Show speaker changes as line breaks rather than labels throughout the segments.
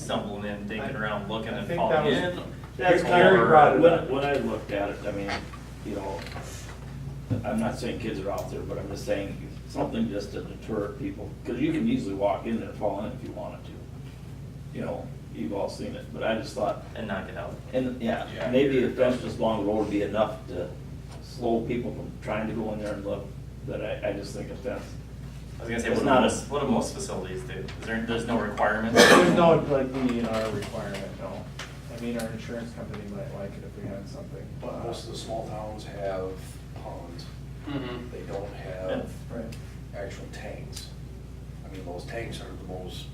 stumbling in, digging around, looking
I
and
think
falling
that
in.
That's
Or-
Gary
brought it up.
When, when I looked at it, I mean, you know, I'm not saying kids are out there, but I'm just saying something just to deter people. Cause you can easily walk in there and fall in if you wanted to. You know, you've all seen it, but I just thought,
And knock it out.
and yeah,
Yeah.
maybe a fence just along the road would be enough to slow people from trying to go in there and look. But I, I just think a fence,
I was gonna say,
It's
what do
not a-
most, what do most facilities do? Is there, there's no requirement?
There's no, like, DNR requirement, no. I mean, our insurance company might like it if we had something. uh,
But most of the small towns have ponds.
Mm-hmm.
They don't have
Right.
actual tanks. I mean, those tanks are the most,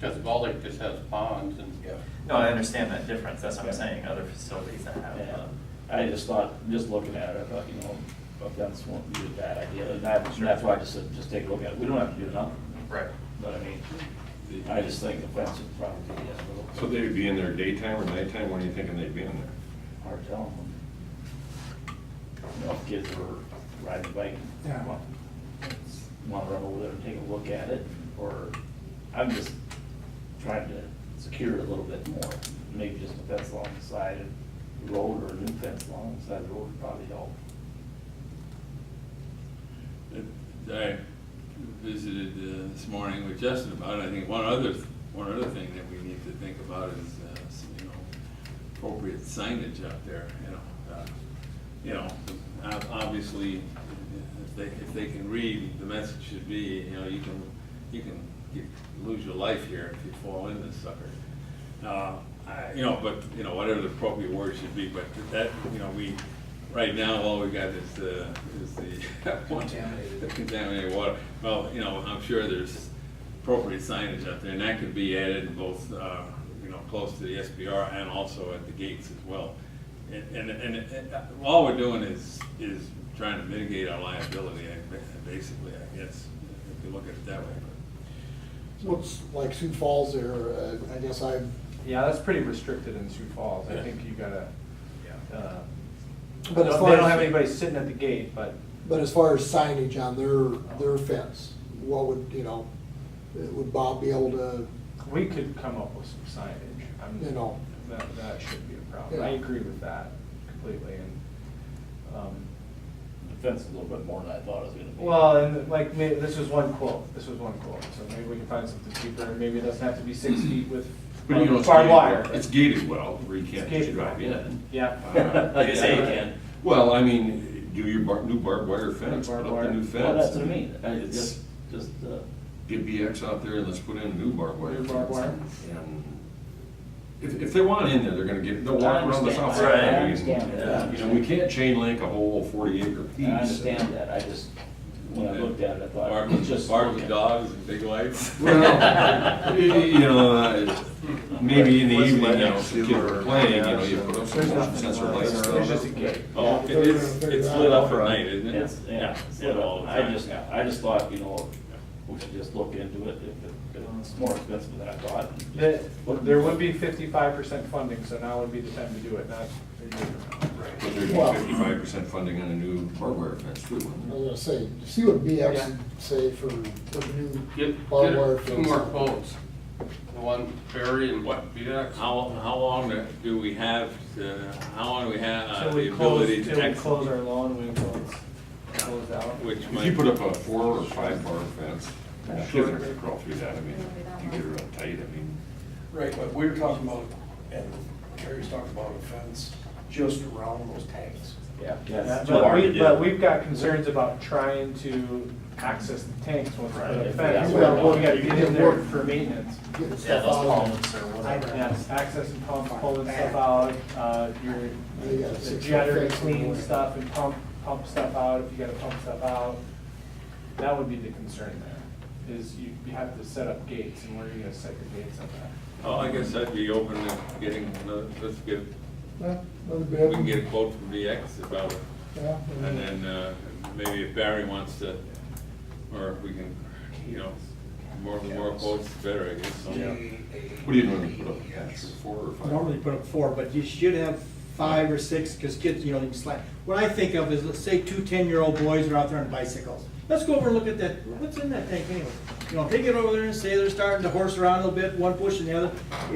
Because Ball Lake just has ponds and.
yeah.
No, I understand that difference, that's what I'm
Yeah.
saying, other facilities that have,
Yeah,
uh,
I just thought, just looking at it, I thought, you know, a fence won't be a bad idea, and I- and that's why I just said, just take a look at it, we don't have to do nothing,
right.
but I mean, I just think a fence would probably be a little
So they'd be in there daytime or nighttime, when are you thinking they'd be in there?
hard to tell them. You know, if kids were riding a bike,
Yeah.
want, want to run over there and take a look at it, or, I'm just trying to secure it a little bit more, maybe just a fence along the side of the road, or a new fence along the side of the road would probably help.
I visited uh, this morning with Justin about it, I think one other, one other thing that we need to think about is, uh, s- you know, appropriate signage out there, you know. uh, You know, ob- obviously, if they, if they can read, the message should be, you know, you can, you can get- lose your life here if you fall in this sucker. Uh, I- You know, but, you know, whatever the appropriate word should be, but that, you know, we, right now, all we got is, uh, is the.
Contaminated.
the contaminated water. Well, you know, I'm sure there's appropriate signage out there, and that could be added in both, uh, you know, close to the SBR and also at the gates as well. And, and, and and, uh, all we're doing is, is trying to mitigate our liability, I ba- basically, I guess, if you look at it that way.
Looks like Sioux Falls there, uh, I guess I've,
Yeah, that's pretty restricted in Sioux Falls. I think you gotta, uh, they
But as far
don't
as-
have anybody sitting at the gate, but
but as far as signage on their, their fence, what would, you know, would Bob be able to,
we could come up with some signage. I'm-
You know.
That, that shouldn't be a problem.
Yeah.
I agree with that completely and, um,
The fence is a little bit more than I thought it was gonna be.
Well, and like, may- this was one quote, this was one quote, so maybe we can find something cheaper, and maybe it doesn't have to be six feet with
But you
barbed
know, it's
wire.
gated, it's gated well, where you can't just
gated.
drive in.
Yeah.
Uh,
Like I say, you
Yeah.
can.
Well, I mean, do your bar, new barbed wire fence, put
Barbed
up the
wire.
new fence.
Well, that's what I mean, I just, just, uh,
Get BX out there and let's put in a new barbed wire.
New barbed wire.
fence. And If, if they want in there, they're gonna get, they'll
I
walk around the
understand.
south
Right.
side.
I
understand that.
You know, we can't chain link a whole forty acre
I
piece.
understand that, I just, when I looked at it, I thought, it's just.
Bark with
looking.
dogs and big lights.
Well, you you know, uh, maybe in the
Let's
evening, you
let
know,
it
if the kids
do
are
or-
playing, you know,
yeah,
you
so-
put up some
There's
motion
nothing,
sensor
uh,
lights. and
there's just a
stuff.
gate.
Oh,
Yeah,
it-
they're
it's,
gonna
it's
figure
lit
it out.
up for night, isn't it?
It's, yeah,
it's
you
lit all
know,
the
I
time.
just, I just thought, you know, we should just look into it, if it- if it's more expensive than I thought.
The- There would be fifty-five percent funding, so now would be the time to do it, not a year from now.
But there'd be
Well-
fifty-five percent funding on a new hardware fence too, wouldn't
I
there?
was gonna say, see what BX
Yeah.
would say for a new
Get,
barbed wire
get
fence.
two more quotes. The one Barry and what, VDEX?
How, how long do we have, to- how long do we have uh,
Till
the
we close,
ability to
till we
execute?
close our loan, we close, close out.
Which
If you
might,
put up a four or five bar fence, kids are gonna crawl through that, I mean, you get it real tight, I mean.
Right, but we were talking about, and Gary's talking about a fence just around those tanks.
Yeah.
Yeah, it's too
But
hard to
we,
do.
but we've got concerns about trying to access the tanks once we put
Right,
a
if
fence,
that's
we
what
gotta
I
we
want.
gotta get in there
Work.
for maintenance.
Get the
Yeah,
stuff
those
out.
columns or whatever.
Yes, access and pump, pulling stuff out, uh, your
You got
the
six
jetter,
fixes in
clean
there.
stuff and pump, pump stuff out, if you gotta pump stuff out. That would be the concern there, is you, you have to set up gates, and where are you gonna set your gates up at?
oh, I guess I'd be open to getting, another- let's get,
Well, another
we
bid.
can get a quote from VX about it.
Yeah, and
And then, uh, maybe if Barry wants to, or if we can, you know, more, the more quotes, the better, I guess. so.
What do you normally put up, a fence, four or five?
Normally put up four, but you should have five or six, because kids, you know, you can slide. What I think of is, let's say two ten-year-old boys are out there on bicycles. Let's go over and look at that, what's in that tank anyway? You know, if they get over there and say they're starting to horse around a little bit, one pushing the other,